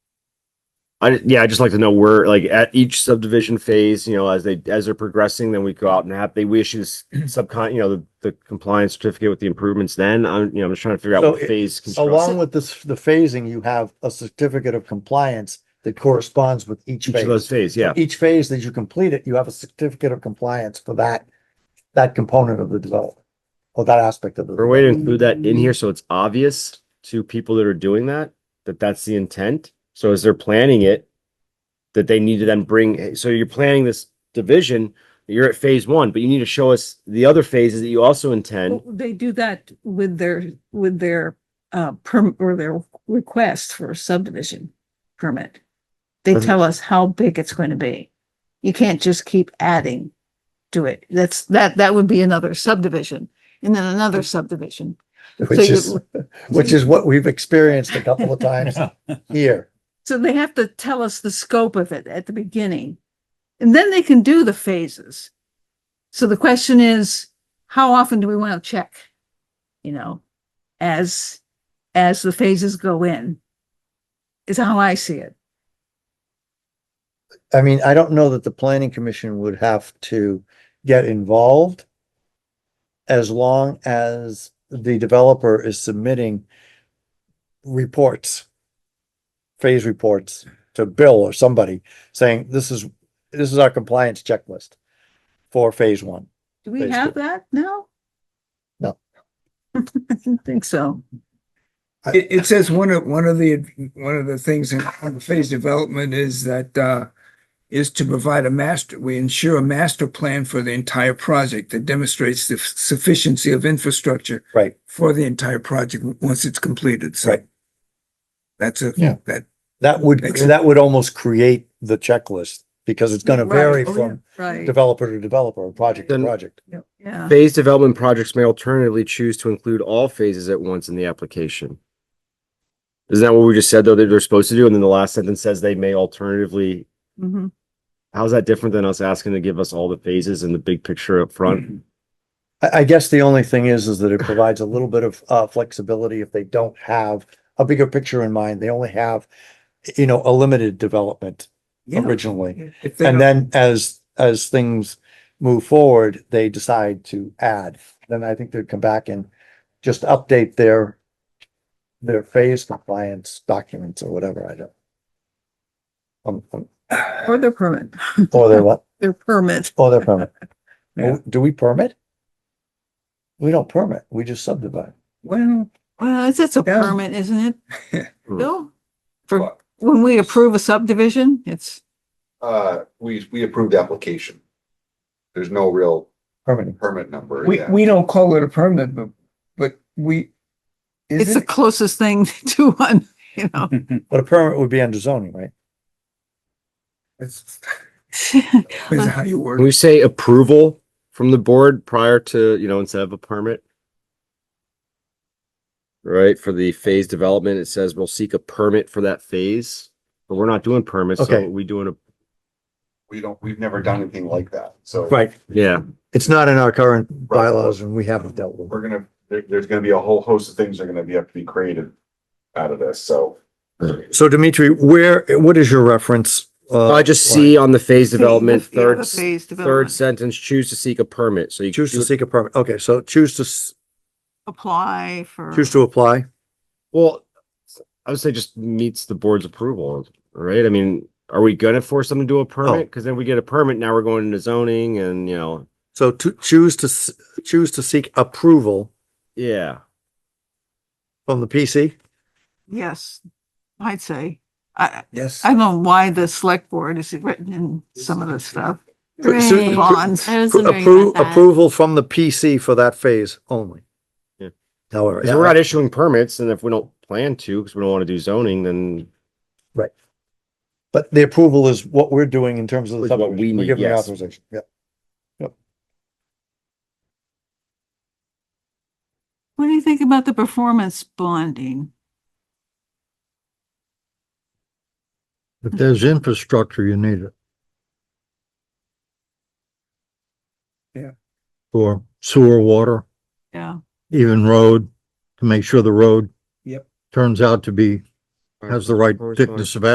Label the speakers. Speaker 1: I, yeah, I just like to know where, like at each subdivision phase, you know, as they, as they're progressing, then we go out and have, they, we issue this subcon, you know, the, the compliance certificate with the improvements then, I'm, you know, I'm just trying to figure out
Speaker 2: So
Speaker 1: what
Speaker 2: it-
Speaker 1: phase. construction-
Speaker 2: Along with this, the phasing, you have a certificate of compliance that corresponds with
Speaker 1: Each
Speaker 2: each
Speaker 1: of
Speaker 2: phase.
Speaker 1: those phase, yeah,
Speaker 2: Each phase that you complete it, you have a certificate of compliance for that, that component of the development. Or that aspect of
Speaker 1: or a
Speaker 2: the,
Speaker 1: way to include that in here, so it's obvious to people that are doing that, that that's the intent, so as they're planning it. That they need to then bring, so you're planning this division, you're at phase one, but you need to show us the other phases that you also intend.
Speaker 3: Well, They do that with their, with their, uh, perm, or their request for a subdivision permit. They
Speaker 1: Mhm.
Speaker 3: tell us how big it's going to be. You can't just keep adding to it. That's, that, that would be another subdivision and then another subdivision.
Speaker 2: which
Speaker 3: So
Speaker 2: is,
Speaker 3: you-
Speaker 2: which is what we've experienced a couple of times here.
Speaker 3: So they have to tell us the scope of it at the beginning. And then they can do the phases. So the question is, how often do we want to check? You know, as, as the phases go in. Is how I see it.
Speaker 2: I mean, I don't know that the planning commission would have to get involved as long as the developer is submitting reports, phase reports to Bill or somebody saying, this is, this is our compliance checklist for phase one.
Speaker 3: Do we
Speaker 2: Phase
Speaker 3: have
Speaker 2: two.
Speaker 3: that now?
Speaker 2: No.
Speaker 3: I didn't think so.
Speaker 4: It, it says one of, one of the, one of the things in on the phase development is that, uh, is to provide a master, we ensure a master plan for the entire project that demonstrates the sufficiency of infrastructure
Speaker 2: Right.
Speaker 4: for the entire project once it's completed, so.
Speaker 2: Right.
Speaker 4: That's a,
Speaker 2: Yeah.
Speaker 4: that,
Speaker 2: That would,
Speaker 4: Makes sense.
Speaker 2: that would almost create the checklist because it's gonna
Speaker 3: Right.
Speaker 2: vary
Speaker 3: Oh, yeah.
Speaker 2: from
Speaker 3: Right,
Speaker 2: developer to developer, or project to
Speaker 1: Then-
Speaker 2: project.
Speaker 3: yeah.
Speaker 1: Phase development projects may alternatively choose to include all phases at once in the application. Isn't that what we just said, though, that they're supposed to do, and then the last sentence says they may alternatively,
Speaker 3: Mhm.
Speaker 1: how's that different than us asking to give us all the phases and the big picture up front?
Speaker 2: I, I guess the only thing is, is that it provides a little bit of, uh, flexibility if they don't have a bigger picture in mind. They only have, you know, a limited development
Speaker 4: yeah.
Speaker 2: originally.
Speaker 4: If they
Speaker 2: And then
Speaker 4: don't-
Speaker 2: as, as things move forward, they decide to add. Then I think they'd come back and just update their, their phase compliance documents or whatever. I don't. Um, um,
Speaker 3: Or their permit,
Speaker 2: or their what?
Speaker 3: their permit.
Speaker 2: Or their permit.
Speaker 4: Yeah.
Speaker 2: Do we permit? We don't permit. We just subdivide.
Speaker 4: Well,
Speaker 3: Well, it's, it's a
Speaker 4: Yeah.
Speaker 3: permit, isn't it?
Speaker 1: Hmm.
Speaker 3: Bill? For, when we approve a subdivision, it's.
Speaker 5: Uh, we, we approved the application. There's no real
Speaker 2: permitting.
Speaker 5: permit number.
Speaker 4: we,
Speaker 5: yeah.
Speaker 4: we don't call it a permit, but, but we. is
Speaker 3: It's the
Speaker 4: it?
Speaker 3: closest thing to one, you know.
Speaker 2: But a permit would be under zoning, right?
Speaker 4: That's, Hmm. is how you
Speaker 1: Can
Speaker 4: word
Speaker 1: we say approval from the board prior to, you know, instead of a permit? Right, for the phase development, it says we'll seek a permit for that phase, but we're not doing permits,
Speaker 2: Okay.
Speaker 1: so we doing a,
Speaker 5: We don't, we've never done anything like that. So
Speaker 2: Right.
Speaker 1: yeah.
Speaker 2: It's not in our current bylaws and we haven't dealt with it.
Speaker 5: we're gonna, there, there's gonna be a whole host of things that are gonna be, have to be created out of this. So
Speaker 2: So Dimitri, where, what is your reference? Uh,
Speaker 1: I just see on the phase development,
Speaker 3: Yeah, the
Speaker 1: third, s-
Speaker 3: phase
Speaker 1: third
Speaker 3: development.
Speaker 1: sentence, choose to seek a permit, so you.
Speaker 2: Choose to
Speaker 1: you-
Speaker 2: seek a permit. Okay, so choose to, s-
Speaker 3: Apply for.
Speaker 2: choose to apply.
Speaker 1: Well, I would say just meets the board's approval, right? I mean, are we gonna force them to do a permit? Cause then we get a permit, now we're going into zoning and, you know,
Speaker 2: So to choose to, s- choose to seek approval
Speaker 1: yeah.
Speaker 2: from the PC.
Speaker 3: Yes, I'd say. I,
Speaker 4: Yes.
Speaker 3: I don't know why the select board is written in some of this stuff.
Speaker 2: Right. Certain-
Speaker 3: Bonds.
Speaker 6: I was wondering
Speaker 2: Approve,
Speaker 6: about that.
Speaker 2: approval from the PC for that phase only.
Speaker 1: Yeah.
Speaker 2: However.
Speaker 1: Cause we're not issuing permits and if we don't plan to, cause we don't wanna do zoning, then
Speaker 2: But the approval is what we're doing in terms of the
Speaker 1: Is what
Speaker 2: subdivision.
Speaker 1: we
Speaker 2: We're
Speaker 1: need,
Speaker 2: giving the
Speaker 1: yes.
Speaker 2: Authorization, yeah.
Speaker 3: What do you think about the performance bonding?
Speaker 7: If there's infrastructure, you need it.
Speaker 4: Yeah.
Speaker 7: For sewer, water,
Speaker 3: Yeah,
Speaker 7: even road, to make sure the road.
Speaker 4: Yep.
Speaker 7: Turns out to be, has the right
Speaker 1: Corresponding.
Speaker 7: thickness of